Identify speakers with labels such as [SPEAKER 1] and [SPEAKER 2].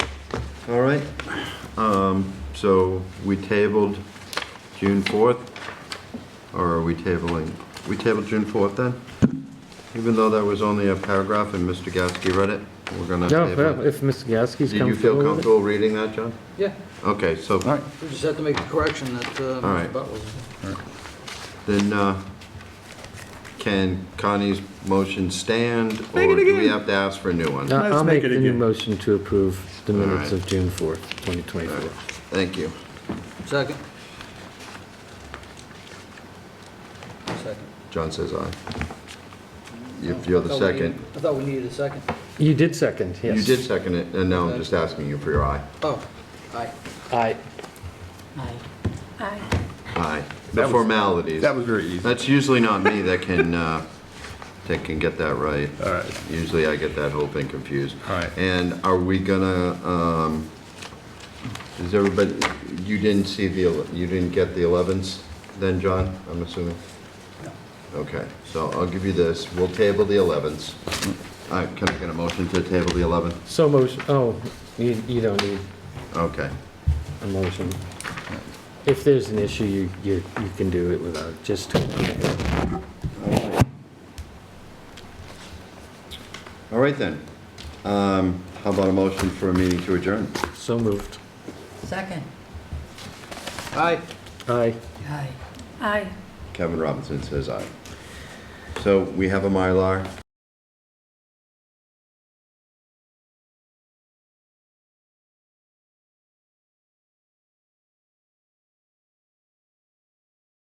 [SPEAKER 1] All right, um, so we tabled June fourth, or are we tabling, we tabled June fourth then? Even though that was only a paragraph and Mr. Gasky read it, we're gonna
[SPEAKER 2] Yeah,
[SPEAKER 1] table
[SPEAKER 2] well,
[SPEAKER 1] it.
[SPEAKER 2] if Mr. Gasky's
[SPEAKER 1] Did you feel
[SPEAKER 2] comfortable with it.
[SPEAKER 1] comfortable reading that, John?
[SPEAKER 3] Yeah,
[SPEAKER 1] Okay, so
[SPEAKER 4] All right,
[SPEAKER 3] we just have to make the correction that uh,
[SPEAKER 1] All right.
[SPEAKER 3] Mr. Butler.
[SPEAKER 1] then, uh, can Connie's motion stand? Or do we have to ask for a new one?
[SPEAKER 2] Uh,
[SPEAKER 4] Let's
[SPEAKER 2] I'll make
[SPEAKER 4] make it
[SPEAKER 2] the new
[SPEAKER 4] again.
[SPEAKER 2] motion to approve the minutes
[SPEAKER 1] right.
[SPEAKER 2] of June 4th, 2024.
[SPEAKER 1] Thank you.
[SPEAKER 3] Second. Second.
[SPEAKER 1] John says aye. If you're the
[SPEAKER 3] I thought we
[SPEAKER 1] second.
[SPEAKER 3] needed- I thought we needed a second.
[SPEAKER 2] You did second, yes.
[SPEAKER 1] You did second it, and now I'm just asking you for your aye.
[SPEAKER 3] Oh, aye.
[SPEAKER 2] Aye.
[SPEAKER 5] Aye.
[SPEAKER 1] Aye. The
[SPEAKER 4] That was-
[SPEAKER 1] formalities.
[SPEAKER 4] that was very easy.
[SPEAKER 1] That's usually not me that can, uh, that can get that right.
[SPEAKER 4] All right.
[SPEAKER 1] Usually I get that whole thing confused.
[SPEAKER 4] All right.
[SPEAKER 1] And are we gonna, um, is everybody, you didn't see the, ele- you didn't get the 11s then, John, I'm assuming? Okay, so I'll give you this. We'll table the 11s. All right, can I get a motion to table the 11?
[SPEAKER 2] So motion, oh, you, you don't need
[SPEAKER 1] Okay.
[SPEAKER 2] a motion. If there's an issue, you, you, you can do it without, just.
[SPEAKER 1] All right then. Um, How about a motion for a meeting to adjourn?
[SPEAKER 2] So moved.
[SPEAKER 5] Second.
[SPEAKER 3] Aye.
[SPEAKER 2] Aye.
[SPEAKER 5] Aye. Aye.
[SPEAKER 1] Kevin Robinson says aye. So we have a Mylar.